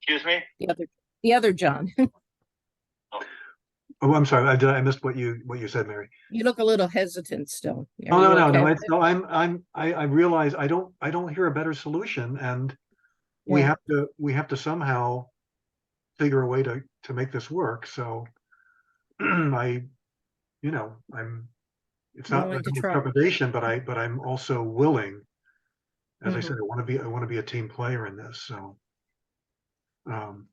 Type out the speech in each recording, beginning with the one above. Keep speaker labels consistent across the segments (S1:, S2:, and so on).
S1: Excuse me?
S2: the other, the other John.
S3: Oh, I'm sorry. I did. I missed what you, what you said, Mary.
S2: You look a little hesitant still. Are
S3: Oh, no,
S2: you
S3: no, no.
S2: okay?
S3: It's, no, I'm, I'm, I, I realize I don't, I don't hear a better solution and we
S2: Yeah.
S3: have to, we have to somehow figure a way to, to make this work. So I, you know, I'm, it's not
S2: Willing
S3: like
S2: to
S3: I'm a
S2: try.
S3: trepidation, but I, but I'm also willing. As I
S2: Mhm.
S3: said, I want to be, I want to be a team player in this, so. Um,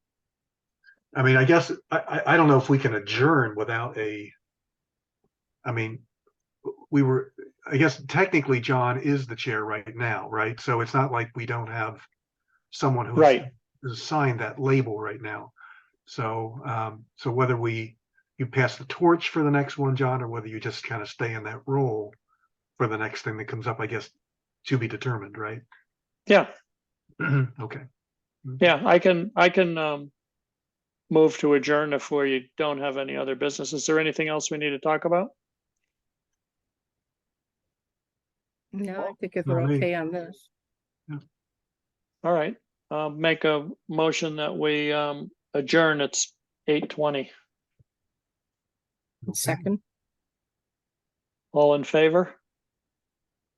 S3: I mean, I guess, I, I, I don't know if we can adjourn without a, I mean, we were, I guess technically John is the chair right now, right? So it's not like we don't have someone who
S1: Right.
S3: is assigned that label right now. So, um, so whether we, you pass the torch for the next one, John, or whether you just kind of stay in that role for the next thing that comes up, I guess, to be determined, right?
S1: Yeah,
S3: Okay.
S1: yeah, I can, I can, um, move to adjourn if we don't have any other business. Is there anything else we need to talk about?
S2: No, I think if
S3: No,
S2: we're
S3: me.
S2: okay on this.
S1: All right, uh, make a motion that we, um, adjourn. It's eight twenty.
S3: Okay.
S2: Second,
S1: All in favor?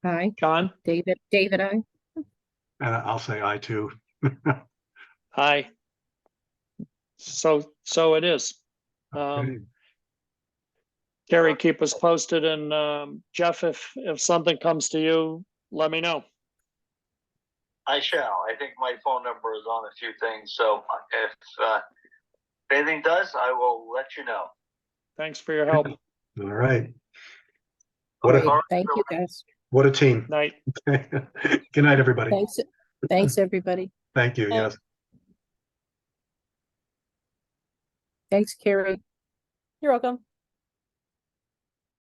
S2: aye,
S1: John?
S2: David, David, aye.
S3: And I'll say I too.
S1: Aye. So, so it is. Um,
S3: Okay.
S1: Gary, keep us posted and um, Jeff, if, if something comes to you, let me know.
S4: I shall. I think my phone number is on a few things, so if uh, if anything does, I will let you know.
S1: Thanks for your help.
S3: All right. What
S2: Great.
S3: a,
S4: Alright,
S2: Thank you, guys.
S3: what a team.
S1: Night.
S3: Good night, everybody.
S2: Thanks, thanks, everybody.
S3: Thank you. Yes.
S2: Thanks, Carrie.
S5: You're welcome.